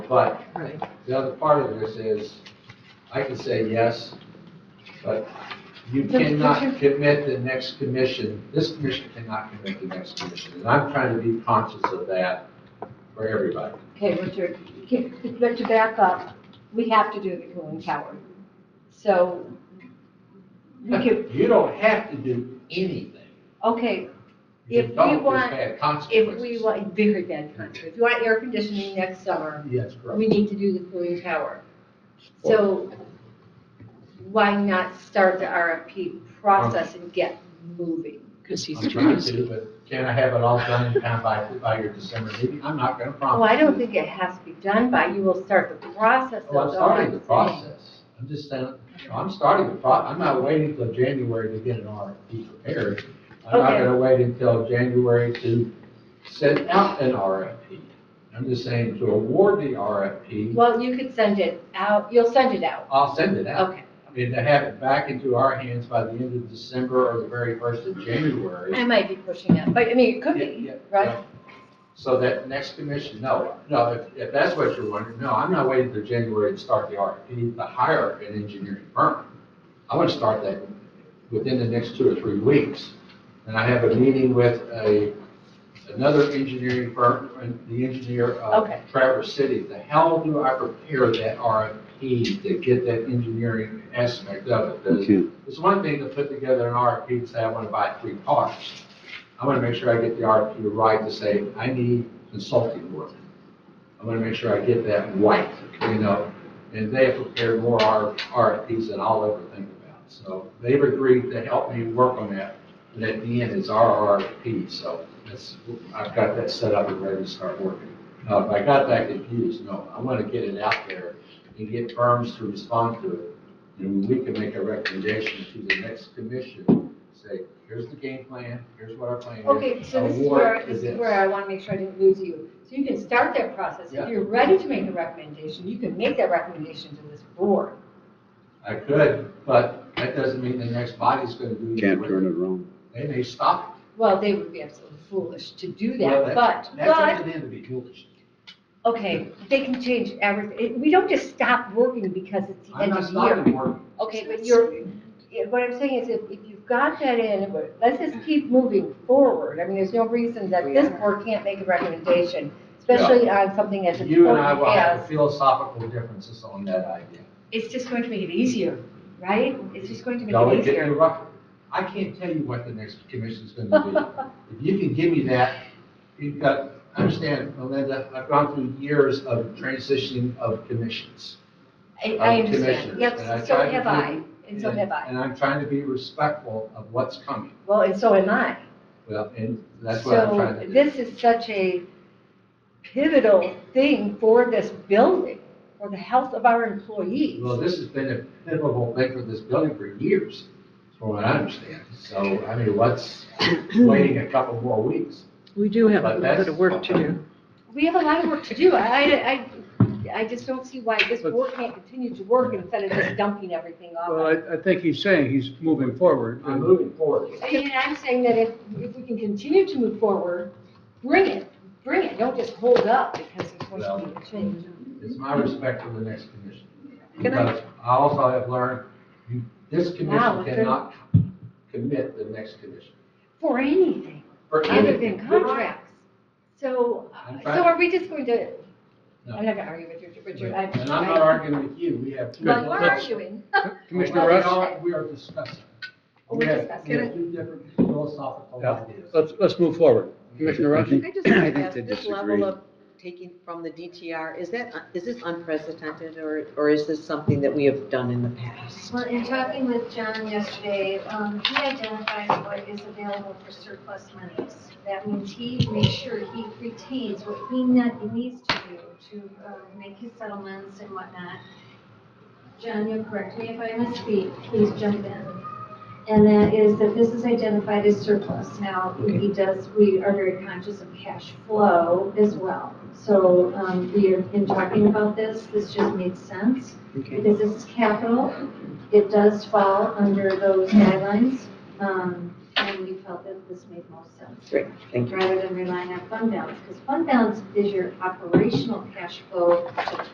But Right. the other part of this is, I can say yes, but you But- but cannot you're- commit the next commission, this commission cannot commit the next commission. And I'm trying to be conscious of that for everybody. Okay, Richard, can- but to back up, we have to do the cooling tower. So, we could, You don't have to do anything. okay, You If we don't, there's want- bad If we consequences. want, very bad country, if you want air conditioning next summer, Yes, correct. we need to do the cooling tower. So why not start the RFP process and get moving? Because he's I'm trying trying to, but can I have it all done and done by, by your December meeting? I'm not gonna Well, promise. Oh, I don't think it has to be done by, you will start the process. Oh, I'm that's all starting the saying. process. I'm just saying, I'm starting the pro, I'm not waiting till January to get an RFP prepared. I'm not Okay. gonna wait until January to send out an RFP. I'm just saying to award the RFP, Well, you could send it out, you'll send it out, I'll send it out. okay. I mean, to have it back into our hands by the end of December or the very first of January. I might be pushing it, but I mean, it could Yeah, be, yeah, right? yeah. So that next commission, no, no, if, if that's what you're wondering, no, I'm not waiting for January to start the RFP to hire an engineering firm. I want to start that within the next two or three weeks. And I have a meeting with a, another engineering firm, and the engineer of Okay. Traverse City. The How do I prepare that RFP to get that engineering aspect of it? The- to it's one thing to put together an RFP and say, I want to buy three cars. I want to make sure I get the RFP right to say, I need consulting work. I want to make sure I get that right, you know? And they have prepared more R- RFPs than I'll ever think about. So they've agreed to help me work on that. And at the end, it's our RFP, so that's, I've got that set up and ready to start working. Now, if I got that confused, no, I want to get it out there and get firms to respond to it. And we can make a recommendation to the next commission, say, here's the game plan, here's what our plan is. Okay, so this is award where, to this is where I want to make sure I didn't lose you. So you can start that process. Yeah. If you're ready to make a recommendation, you can make that recommendation to this board. I could, but that doesn't mean the next body's gonna do it. can't turn it around. They may stop Well, they would be absolutely foolish to do it. Well, that- that, but, That's up but, to them to be foolish. okay, they can change everything. We don't just stop working because it's the I'm end not of the year. stopping working. Okay, but you're, yeah, what I'm saying is if, if you've got that in, but let's just keep moving forward. I mean, there's no reason that Oh, this board can't make a recommendation, especially on something as You and I important will have as, philosophical differences on that idea. it's just going to make it easier, right? It's just going to No, make it it get you easier. right. I can't tell you what the next commission's gonna be. If you can give me that, you've got, understand, Melinda, I've gone through years of transitioning of commissions. I, I'm I understand. commissioner, and I Yep, so try to have do- I, and so have I. And I'm trying to be respectful of what's coming. Well, and so am I. Well, and that's what I'm trying to So do. this is such a pivotal thing for this building, for the health of our employees. Well, this has been a pivotal thing for this building for years, from what I understand. So, I mean, what's waiting a couple more weeks? We do have a But little bit of work to do. We have a lot of work to do. I, I, I- I just don't see why this board can't continue to work instead of just dumping everything Well, off. I, I think he's saying he's moving forward. I'm moving forward. And I'm saying that if, if we can continue to move forward, bring it, bring it, don't just hold up because it's going to be a change. It's my respect for the next commission. Can I- Because I also have learned, you- this Wow, commission it's a- cannot commit the next commission. For anything, For other anything. than contracts. So, I'm so trying- are we just going to, No. I'm not gonna argue with you, Richard. I- And I'm not arguing with you, we have. two Well, we're different- arguing. Commissioner Well, We Rush? are- We are discussing. We're We have- discussing. We have two different philosophical Yeah. ideas. Let's, let's move forward. Commissioner I Rush? think- I just I want think to ask, they this disagree. level of taking from the DTR, is that, uh, is this unprecedented, or, or is this something that we have done in the past? Well, in talking with John yesterday, um, he identifies what is available for surplus monies. That means he makes sure he retains what he ne- needs to do to uh, make his settlements and whatnot. John, you correct me if I misspeak, please jump in. And that is that this is identified as surplus. Now, he does, we are very conscious of cash flow as well. So um, we are, in talking about this, this just made sense Okay. because this is capital. It does fall under those guidelines, um, and we felt felt that this made most sense. Great, thank you. Rather than relying on fund balance, because fund balance is your operational cash flow